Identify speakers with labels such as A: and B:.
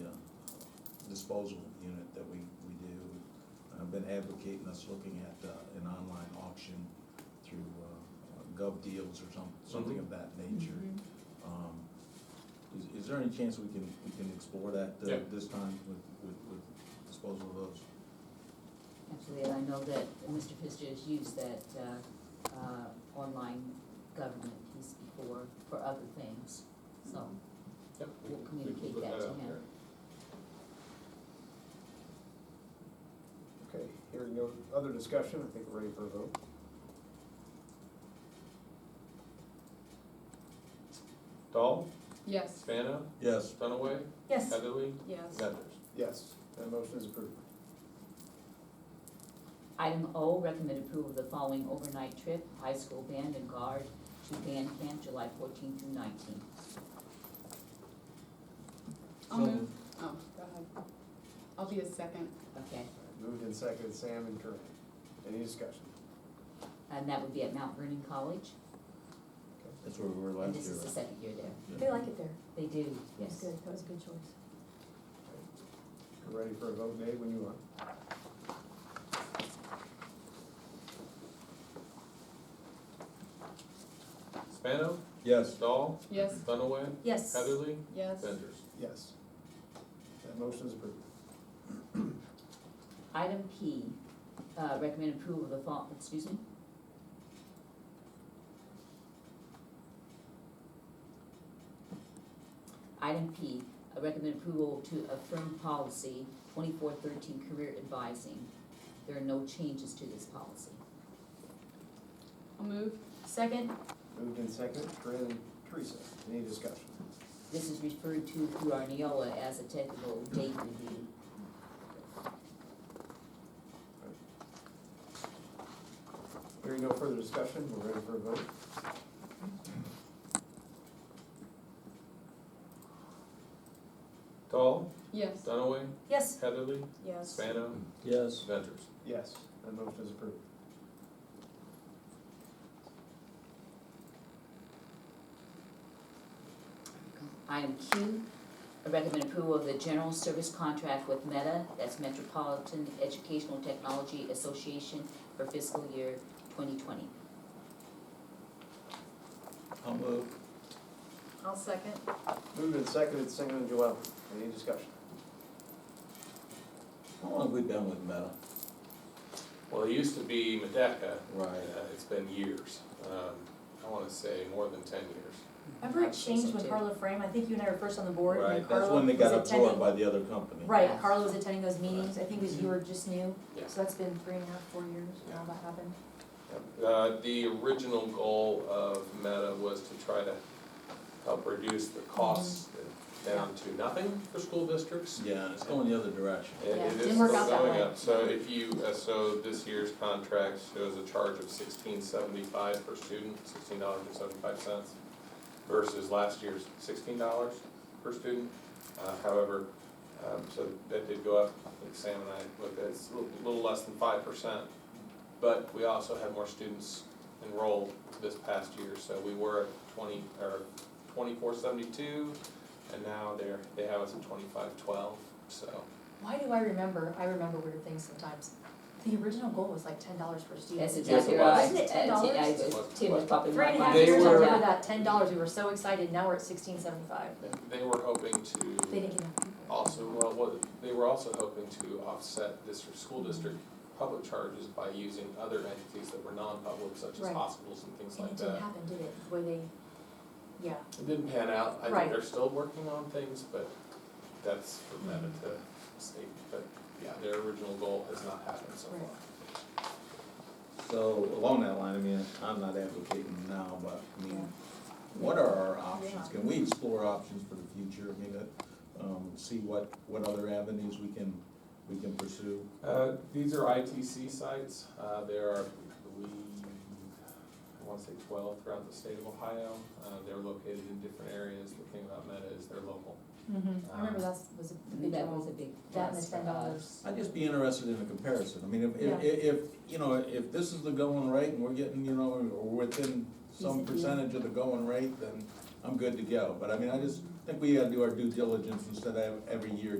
A: uh, disposal unit that we, we do. I've been advocating us looking at, uh, an online auction through, uh, uh, Gov Deals or some, something of that nature.
B: Mm-hmm.
A: Um, is, is there any chance we can, we can explore that, uh,
C: Yeah.
A: this time with, with, with disposal of those?
B: Actually, I know that Mr. Pfister has used that, uh, uh, online government piece before for other things, so
C: Yep, we
B: we'll
C: can- we can
B: communicate
C: put
B: that to
C: out
B: him.
D: Okay, hearing no other discussion, I think we're ready for a vote.
C: there. Dahl,
E: Yes.
C: Spano,
A: Yes,
C: Dunaway,
B: Yes,
C: Heatherly,
E: Yes.
C: Mathers.
D: Yes, that motion is approved.
B: item O, recommend approval of the following overnight trip, high school band and guard to band camp, July fourteenth through nineteenth.
E: I'll
A: So-
E: move. Oh, go ahead. I'll be a second.
B: Okay,
D: Moved and seconded, Sam and Corinne. Any discussion?
B: and that would be at Mount Vernon College,
A: that's where we were
B: and
A: last
B: this
A: year.
B: is the second year there.
A: Yeah.
F: They like it there.
B: They do,
F: That's
B: yes.
F: good. That was a good choice.
D: We're ready for a vote, Dave, when you are.
C: Spano,
A: Yes,
C: Dahl,
E: Yes.
C: Dunaway,
F: Yes.
C: Heatherly,
E: Yes.
C: Mathers.
D: Yes. That motion is approved.
B: Item P, uh, recommend approval of the fall, excuse me? Item P, uh, recommend approval to affirm policy twenty-four thirteen career advising. There are no changes to this policy.
E: I'll move.
F: Second?
D: Moved and seconded, Corinne and Teresa. Any discussion?
B: This is referred to through our Neola as a technical date review.
D: Hearing no further discussion, we're ready for a vote.
C: Dahl,
E: Yes.
C: Dunaway,
F: Yes.
C: Heatherly,
F: Yes.
C: Spano,
A: yes,
C: Ventures.
D: Yes, that motion is approved.
B: Item Q, I recommend approval of the general service contract with Meta, that's Metropolitan Educational Technology Association for fiscal year twenty twenty.
A: I'll move.
F: I'll second.
D: Moved and seconded, Sam and Joel. Any discussion?
A: How long have we been with Meta?
C: Well, it used to be Medaka, uh,
A: Right.
C: it's been years, um, I wanna say more than ten years.
F: Remember it changed when Carla Frame, I think you and I were first on the board
A: Right, that's
F: and Carla
A: when
F: was
A: they got absorbed
F: attending.
A: by the other company.
F: Right, Carla was attending those meetings. I think it was you were just new.
C: Yeah.
F: So that's been three and a half, four years now that happened.
C: Uh, the original goal of Meta was to try to help reduce the costs
B: Mm-hmm.
C: down to nothing for school districts.
A: Yeah, and it's going the other direction.
C: It-
F: Yeah,
C: it is
F: didn't work
C: still
F: out that
C: going
F: way.
C: up. So if you, uh, so this year's contract shows a charge of sixteen seventy-five per student, sixteen dollars and seventy-five cents versus last year's sixteen dollars per student. Uh, however, um, so that did go up, I think Sam and I looked at, it. it's a little, little less than five percent. But we also had more students enrolled this past year, so we were at twenty, or twenty-four seventy-two, and now they're, they have us at twenty-five twelve, so.
F: Why do I remember? I remember weird things sometimes. The original goal was like ten dollars per student.
B: That's
C: Yes, it
B: exactly
C: was.
B: right.
F: Wasn't it
B: Uh, Ti-
F: $10?
B: I was- Tim was popping
F: Three
B: my
F: and a half
C: They
B: mind.
F: years, I
C: were-
F: remember that, ten dollars, we were so excited, now we're at sixteen seventy-five.
C: They were hoping
F: They
C: to
F: didn't get enough people.
C: also, well, what, they were also hoping to offset district, school district public charges by using other entities that were non-public, such as
F: Right.
C: hospitals and things
F: And it
C: like
F: didn't
C: that.
F: happen, did it, the way they, yeah,
C: It didn't pan out, I
F: Right.
C: think they're still working on things, but that's for Meta
F: Mm-hmm.
C: to state, but yeah, their original goal has not happened so
F: Right.
C: far.
A: So along that line, I mean, I'm not advocating now, but I mean, what are our options? Can we explore options for the future? I mean, uh, um, see what, what other avenues we can, we can pursue?
C: Uh, these are ITC sites, uh, there are, we, I wanna say twelve throughout the state of Ohio, uh, they're located in different areas, the thing about Meta is they're local.
F: Mm-hmm. I remember
C: Um,
F: that was a big
B: That was
F: goal.
B: a big
F: That and
B: plus
F: the
B: for
F: ten
B: us.
F: dollars.
A: I'd just be interested in a comparison. I mean, if,
F: Yeah.
A: if, if, you know, if this is the going rate and we're getting, you know, we're within some
F: Decent deal.
A: percentage of the going rate, then I'm good to go. But I mean, I just think we gotta do our due diligence instead of every year